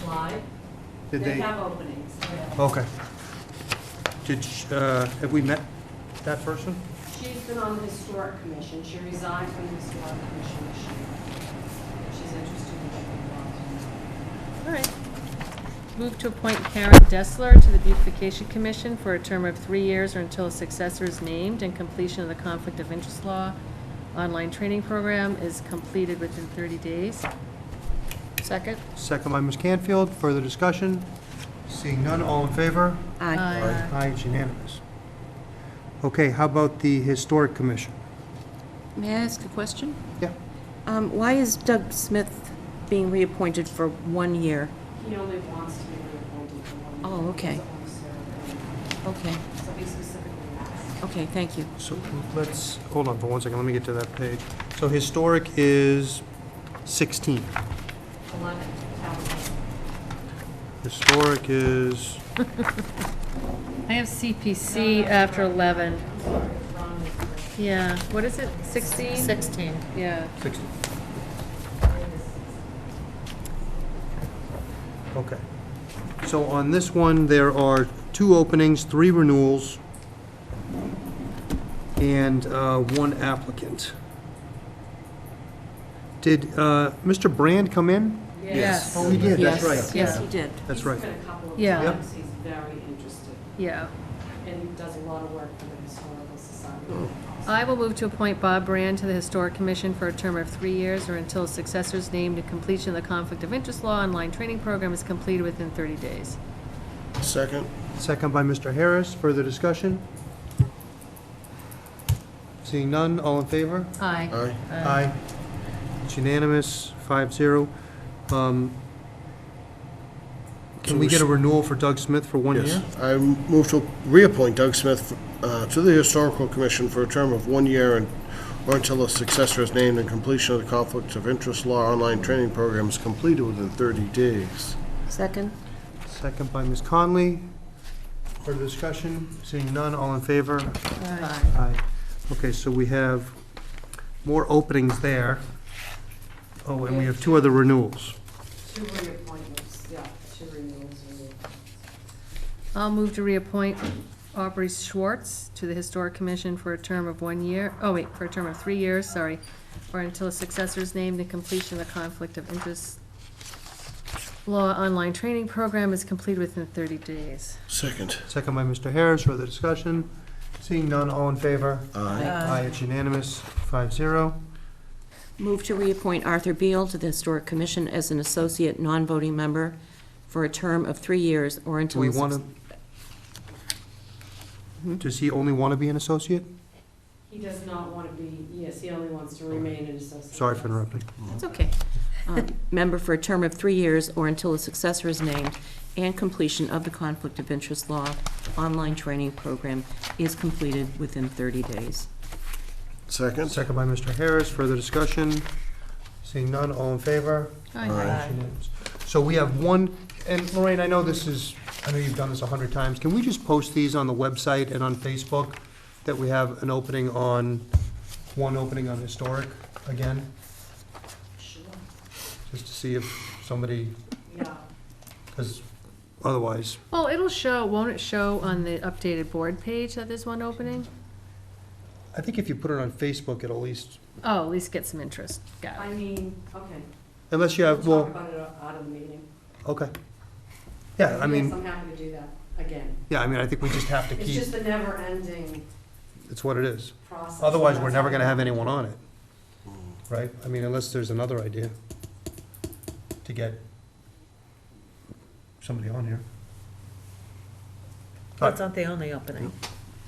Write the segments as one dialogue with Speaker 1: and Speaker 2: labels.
Speaker 1: July.
Speaker 2: Did they,
Speaker 1: have openings, yeah.
Speaker 2: okay. Did, sh- uh, have we met that person?
Speaker 1: She's been on the historic commission, she resigned from the historic commission this year. She's interested in getting involved.
Speaker 3: All right. Move to appoint Karen Dessler to the Beautification Commission for a term of three years or until a successor is named and completion of the Conflict of Interest Law online training program is completed within 30 days. Second?
Speaker 2: Second by Ms. Canfield, further discussion? Seeing none, all in favor?
Speaker 4: Aye.
Speaker 2: Aye, it's unanimous. Okay, how about the Historic Commission?
Speaker 4: May I ask a question?
Speaker 2: Yeah.
Speaker 4: Um, Why is Doug Smith being reappointed for one year?
Speaker 1: He only wants to be reappointed for one year.
Speaker 4: Oh, okay.
Speaker 1: He's only serving.
Speaker 4: Okay,
Speaker 1: So he specifically asked.
Speaker 4: okay, thank you.
Speaker 2: So let's, hold on for one second, let me get to that page. So Historic is 16.
Speaker 1: Eleven,
Speaker 2: Historic is,
Speaker 3: I have CPC after 11.
Speaker 1: Ron was the-
Speaker 3: Yeah, what is it, 16? 16. Yeah.
Speaker 2: okay. So on this one, there are two openings, three renewals, and uh, one applicant. Did uh, Mr. Brand come in?
Speaker 3: Yes.
Speaker 2: Oh, he did, that's
Speaker 4: Yes,
Speaker 2: right.
Speaker 4: Yes,
Speaker 3: Yeah.
Speaker 4: he did.
Speaker 2: That's right.
Speaker 1: He's been a couple of
Speaker 3: Yeah. Yep.
Speaker 1: times, he's very interested,
Speaker 3: Yeah.
Speaker 1: and he does a lot of work for the Historical Society.
Speaker 3: I will move to appoint Bob Brand to the Historic Commission for a term of three years or until a successor is named and completion of the Conflict of Interest Law online training program is completed within 30 days.
Speaker 5: Second,
Speaker 2: Second by Mr. Harris, further discussion? Seeing none, all in favor?
Speaker 3: Aye.
Speaker 5: aye.
Speaker 2: Aye. It's unanimous, five zero. Um, Can we get a renewal for Doug Smith for one
Speaker 5: Yes.
Speaker 2: year?
Speaker 5: I move to reappoint Doug Smith uh, to the Historical Commission for a term of one year and, or until a successor is named and completion of the Conflicts of Interest Law online training program is completed within 30 days.
Speaker 4: Second?
Speaker 2: Second by Ms. Conley. Further discussion? Seeing none, all in favor? Aye. Okay, so we have more openings there. Oh, and we have two other renewals.
Speaker 1: Two reappointments, yeah, two renewals, renewals.
Speaker 3: I'll move to reappoint Aubrey Schwartz to the Historic Commission for a term of one year, oh wait, for a term of three years, sorry, or until a successor is named and completion of the Conflict of Interest Law online training program is completed within 30 days.
Speaker 5: Second,
Speaker 2: Second by Mr. Harris, further discussion? Seeing none, all in favor?
Speaker 5: aye.
Speaker 2: Aye, it's unanimous, five zero.
Speaker 4: Move to reappoint Arthur Beal to the Historic Commission as an associate non-voting member for a term of three years or
Speaker 2: Do
Speaker 4: until...
Speaker 2: we
Speaker 4: a
Speaker 2: want
Speaker 4: suc-
Speaker 2: to? Does he only want to be an associate?
Speaker 1: He does not want to be, yes, he only wants to remain an associate.
Speaker 2: Sorry for interrupting.
Speaker 4: It's okay. Um, Member for a term of three years or until a successor is named and completion of the Conflict of Interest Law online training program is completed within 30 days.
Speaker 5: Second,
Speaker 2: Second by Mr. Harris, further discussion? Seeing none, all in favor?
Speaker 5: aye.
Speaker 2: Unanimous. So we have one, and Lorraine, I know this is, I know you've done this a hundred times, can we just post these on the website and on Facebook? That we have an opening on, one opening on historic again,
Speaker 1: Sure,
Speaker 2: just to see if somebody,
Speaker 1: yeah.
Speaker 2: because otherwise,
Speaker 3: Well, it'll show, won't it show on the updated board page that there's one opening?
Speaker 2: I think if you put it on Facebook, it'll at least,
Speaker 3: Oh, at least get some interest. Got
Speaker 1: I
Speaker 3: it.
Speaker 1: mean, okay,
Speaker 2: unless you
Speaker 1: we'll
Speaker 2: have, well.
Speaker 1: talk about it out of the meeting.
Speaker 2: Okay. Yeah, I
Speaker 1: Yes,
Speaker 2: mean,
Speaker 1: I'm happy to do that, again.
Speaker 2: yeah, I mean, I think we just have to
Speaker 1: It's
Speaker 2: keep,
Speaker 1: just the never-ending
Speaker 2: it's what it is.
Speaker 1: process.
Speaker 2: Otherwise, we're never gonna have anyone on it. Right? I mean, unless there's another idea to get somebody on here.
Speaker 6: That's not the only opening,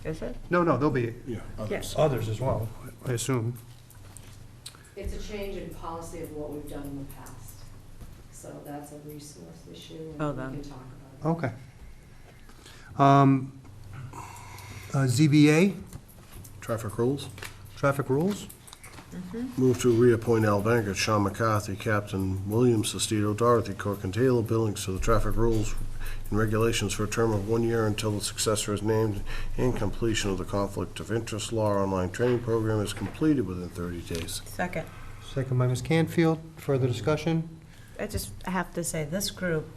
Speaker 6: is it?
Speaker 2: No, no, there'll be
Speaker 5: yeah,
Speaker 6: Yes.
Speaker 5: others.
Speaker 2: others as well, I assume.
Speaker 1: It's a change in policy of what we've done in the past. So that's a resource issue,
Speaker 4: Oh,
Speaker 1: and
Speaker 4: then.
Speaker 1: we can talk about
Speaker 2: Okay. Um, uh, ZBA,
Speaker 5: Traffic rules.
Speaker 2: traffic rules?
Speaker 5: Move to reappoint Al Bankert, Sean McCarthy, Captain William Sestito, Dorothy Cook, and Taylor Billings to the traffic rules and regulations for a term of one year until a successor is named and completion of the Conflict of Interest Law online training program is completed within 30 days.
Speaker 6: Second,
Speaker 2: Second by Ms. Canfield, further discussion?
Speaker 6: I just have to say, this group